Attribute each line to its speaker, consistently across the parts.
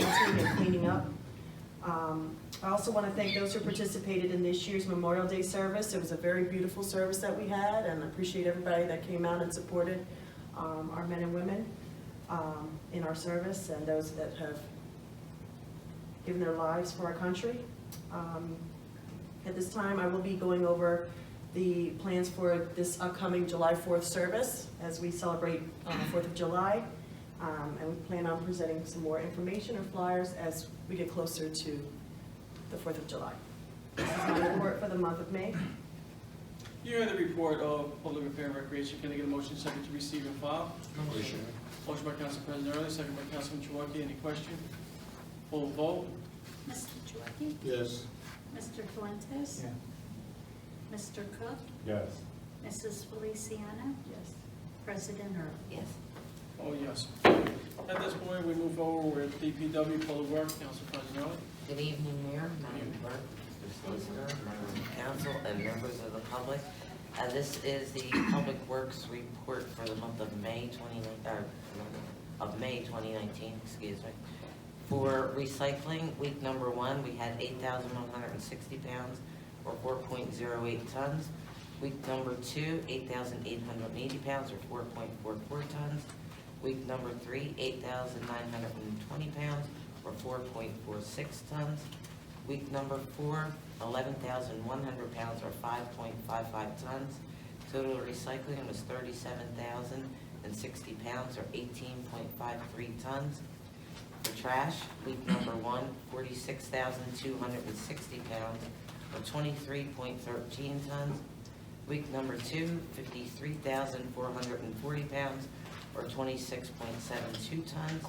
Speaker 1: and cleaning up. Um, I also want to thank those who participated in this year's Memorial Day service. It was a very beautiful service that we had, and I appreciate everybody that came out and supported um, our men and women um, in our service, and those that have given their lives for our country. Um, At this time, I will be going over the plans for this upcoming July 4th service as we celebrate uh, 4th of July. Um, And we plan on presenting some more information or flyers as we get closer to the 4th of July. This is my report for the month of May.
Speaker 2: You heard the report of Public Affair and Recreation. Can I get a motion second to receive and file?
Speaker 3: Motion.
Speaker 2: Motion by Council President Early, second by Councilman Chouwaki. Any question? Full vote?
Speaker 4: Mr. Chouwaki?
Speaker 3: Yes.
Speaker 4: Mr. Fuentes? Mr. Cook?
Speaker 5: Yes.
Speaker 4: Mrs. Feliciano?
Speaker 1: Yes.
Speaker 4: President Early?
Speaker 6: Yes.
Speaker 2: Oh, yes. At this point, we move forward with DPW Public Works, Council President Early.
Speaker 6: Good evening, Mayor, Madam Clerk, Mr. Solicitor, members of council, and members of the public. Uh, This is the Public Works Report for the month of May 29, uh, of May 2019, excuse me. For recycling, week number one, we had 8,160 pounds, or 4.08 tons. Week number two, 8,880 pounds, or 4.44 tons. Week number three, 8,920 pounds, or 4.46 tons. Week number four, 11,100 pounds, or 5.55 tons. Total recycling was 37,060 pounds, or 18.53 tons. For trash, week number one, 46,260 pounds, or 23.13 tons. Week number two, 53,440 pounds, or 26.72 tons.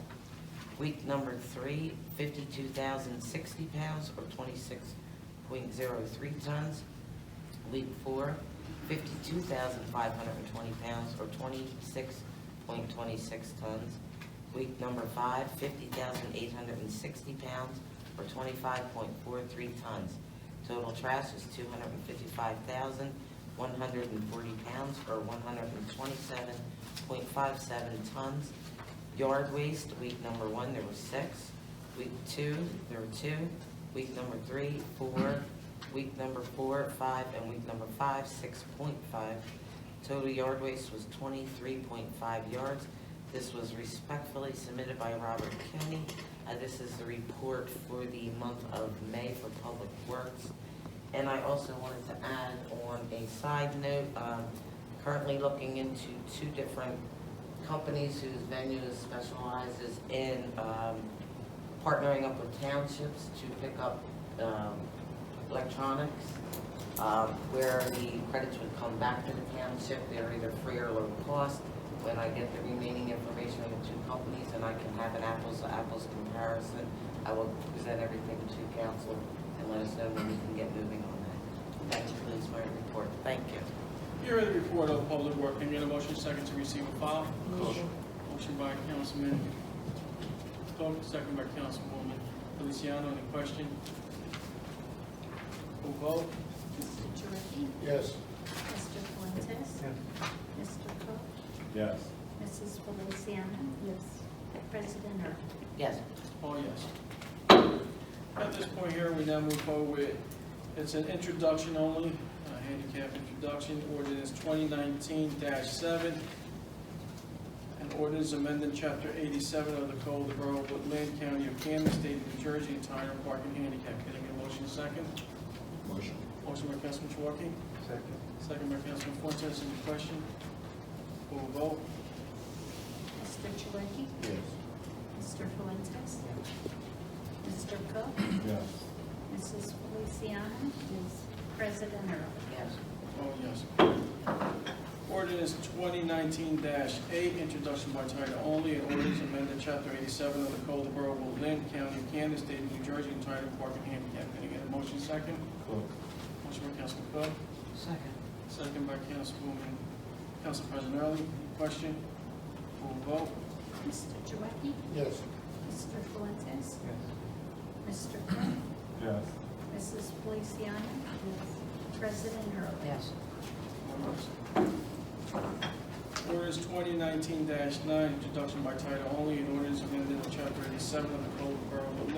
Speaker 6: Week number three, 52,060 pounds, or 26.03 tons. Week four, 52,520 pounds, or 26.26 tons. Week number five, 50,860 pounds, or 25.43 tons. Total trash is 255,140 pounds, or 127.57 tons. Yard waste, week number one, there was six. Week two, there were two. Week number three, four. Week number four, five, and week number five, six point five. Total yard waste was twenty-three point five yards. This was respectfully submitted by Robert County. Uh, this is the report for the month of May for Public Works. And I also wanted to add on a side note, um, currently looking into two different companies whose venue specializes in, um, partnering up with townships to pick up, um, electronics, um, where the credits would come back to the township, they're either free or low cost. When I get the remaining information on the two companies and I can have an apples to apples comparison, I will present everything to council and let us know when we can get moving on that. That concludes my report, thank you.
Speaker 2: You heard the report of Public Works. Can I get a motion second to receive and file?
Speaker 3: Motion.
Speaker 2: Motion by Councilman Cook, second by Councilwoman Feliciano. Any question? Full vote?
Speaker 4: Mr. Chouwaki?
Speaker 3: Yes.
Speaker 4: Mr. Fuentes? Mr. Cook?
Speaker 5: Yes.
Speaker 4: Mrs. Feliciano?
Speaker 1: Yes.
Speaker 4: President Early?
Speaker 6: Yes,
Speaker 2: Oh, yes. At this point here, we now move forward with, it's an introduction only, a handicap introduction, ordinance twenty nineteen seven. An ordinance amending chapter eighty-seven of the Code of the Borough of Woodland, County of Camden, State of New Jersey, entitled parking handicap. Can I get a motion second?
Speaker 3: Motion.
Speaker 2: Motion by Councilman Chouwaki,
Speaker 5: Second.
Speaker 2: second by Councilman Fuentes, any question? Full vote?
Speaker 4: Mr. Chouwaki?
Speaker 3: Yes.
Speaker 4: Mr. Fuentes? Mr. Cook?
Speaker 5: Yes.
Speaker 4: Mrs. Feliciano? President Early?
Speaker 6: yes,
Speaker 2: Oh, yes. Ordinance twenty nineteen eight, introduction by title only, an ordinance amended chapter eighty-seven of the Code of the Borough of Lynn, County of Kansas, State of New Jersey, entitled Parking Handicap. Can I get a motion second?
Speaker 5: Cook.
Speaker 2: Motion by Councilman Cook,
Speaker 6: second.
Speaker 2: second by Councilwoman, Council President Early. Any Question? Full vote?
Speaker 4: Mr. Chouwaki?
Speaker 3: Yes.
Speaker 4: Mr. Fuentes?
Speaker 5: Yes.
Speaker 4: Mr. Cook?
Speaker 5: Yes.
Speaker 4: Mrs. Feliciano? President Early?
Speaker 6: Yes.
Speaker 2: Ordinance twenty nineteen nine, introduction by title only, an ordinance amended in chapter eighty-seven of the Code of the Borough of